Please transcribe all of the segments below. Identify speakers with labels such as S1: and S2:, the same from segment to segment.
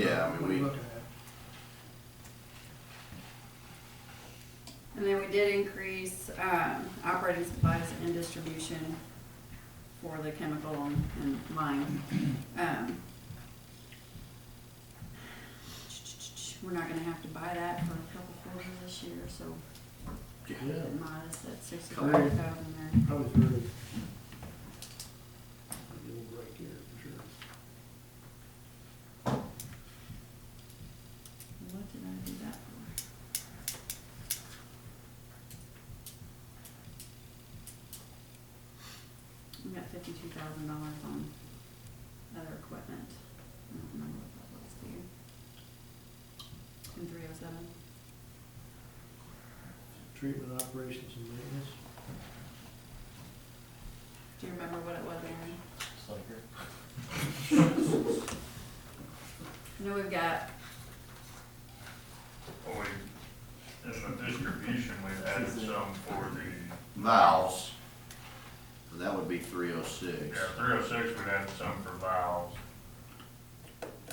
S1: Yeah, I mean,
S2: What are you
S1: we-
S2: looking at?
S3: And then we did increase, um, operating supplies and distribution for the chemical and mine. Um, We're not gonna have to buy that for a couple quarters this year, so
S2: Yeah,
S3: modest, that's sixty-five thousand there.
S2: probably through. Give it a little break here, for sure.
S3: What did I do that for? We got fifty-two thousand dollars on other equipment. I don't remember what that was, do you? In three oh seven?
S2: Treatment operations and maintenance.
S3: Do you remember what it was, Aaron?
S4: Sucker.
S3: No, we've got,
S5: Well, we, in the distribution, we've added some for the,
S1: valves, that would be three oh six.
S5: yeah, three oh six, we've added some for valves.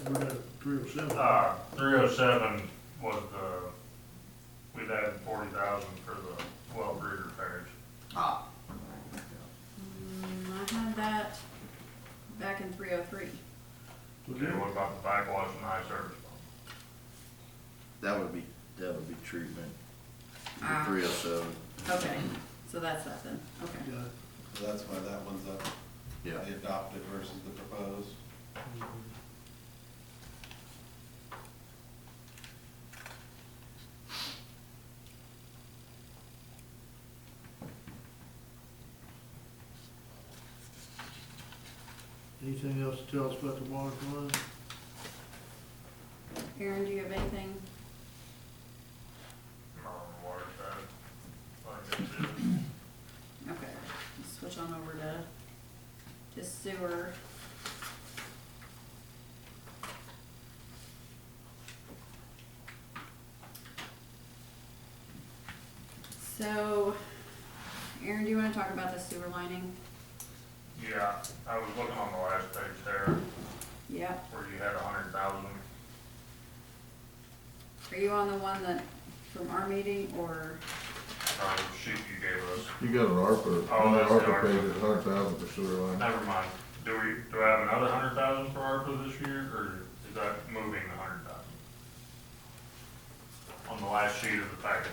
S2: We're at three oh seven.
S5: Uh, three oh seven was the, we've added forty thousand for the well grid repairs.
S1: Ah,
S3: mm, I had that back in three oh three.
S2: Was
S5: Okay,
S2: there-
S5: what about the backwash and high service pump?
S1: that would be, that would be treatment, three
S3: Ah.
S1: oh seven,
S3: Okay, so that's that then, okay.
S2: Yeah.
S4: So that's why that one's up,
S1: yeah.
S4: the adopted versus the proposed.
S2: Mhm. Anything else to tell us about the water fund?
S3: Aaron, do you have anything?
S5: Not on the water side. Like I said,
S3: Okay, let's switch on over to, to sewer. So, Aaron, do you wanna talk about the sewer lining?
S5: Yeah, I was looking on the last page there,
S3: Yep.
S5: where you had a hundred thousand.
S3: Are you on the one that, from our meeting, or,
S5: Uh, sheet you gave us.
S6: You got an ARPA,
S5: Oh, that's the
S6: ARPA page
S5: ARPA.
S6: is a hundred thousand for sewer line.
S5: Never mind. Do we, do I have another hundred thousand for ARPA this year, or is that moving the hundred thousand? On the last sheet of the packet.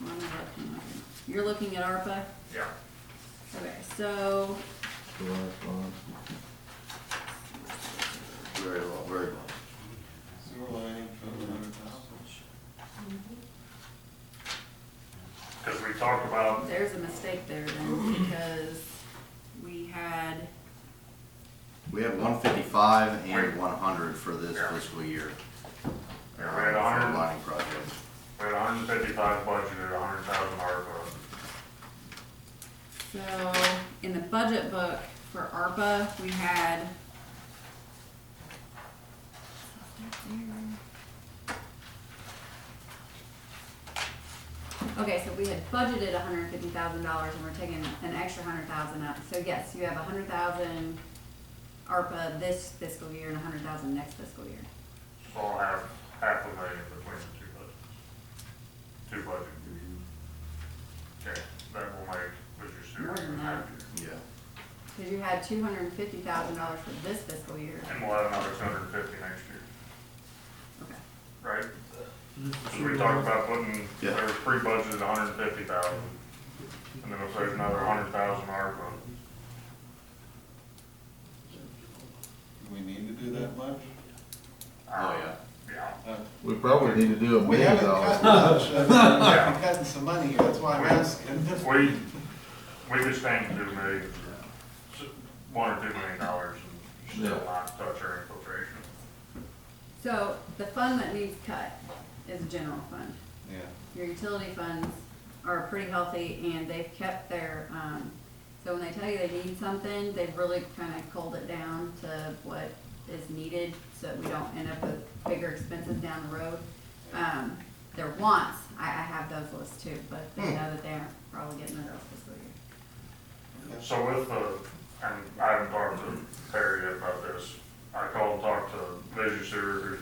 S3: I'm not looking at it. you're looking at ARPA?
S5: Yeah.
S3: Okay, so,
S6: The last line.
S1: Very low, very low.
S4: Sewer lining for the hundred thousand.
S5: Cause we talked about,
S3: there's a mistake there then, because we had
S1: We have one fifty-five and one hundred for this fiscal year.
S5: Yeah, we had
S1: uh, for
S5: 100.
S1: Lining projects.
S5: we had hundred and fifty-five budgeted, hundred thousand ARPA.
S3: So, in the budget book for ARPA, we had. Okay, so we had budgeted hundred and fifty thousand dollars and we're taking an extra hundred thousand out, so yes, you have a hundred thousand ARPA this fiscal year and a hundred thousand next fiscal year.
S5: So I'll have half a million between the two budgets. Two budgets. Okay, that will make, was your
S3: More
S5: sewer
S3: than that.
S5: even happier.
S1: Yeah.
S3: Cause you had two hundred and fifty thousand dollars for this fiscal year,
S5: And we'll have another two hundred and fifty next year,
S3: okay.
S5: right?
S2: Is this the
S5: So we
S2: sewer
S5: talked
S2: line?
S5: about putting,
S1: Yeah.
S5: there was pre-budgeted hundred and fifty thousand, and then we'll save another hundred thousand ARPA.
S4: Do we need to do that much?
S1: Oh, yeah.
S5: Yeah.
S6: We probably need to do a
S4: We
S6: million
S4: haven't
S6: dollars.
S4: cut much, I mean, we're cutting some money here, that's why I'm asking.
S5: We, we could stand to do maybe s- one or two million dollars and still
S6: Yeah.
S5: not touch our infiltration.
S3: So the fund that needs cut is the general fund.
S4: Yeah.
S3: Your utility funds are pretty healthy and they've kept their, um, so when they tell you they need something, they've really kind of culled it down to what is needed so that we don't end up with bigger expenses down the road. Um, their wants, I, I have those lists too, but they know that they aren't probably getting those fiscal year.
S5: So with the, and I haven't talked to Perry yet about this, I called and talked to Vision Sewer, who's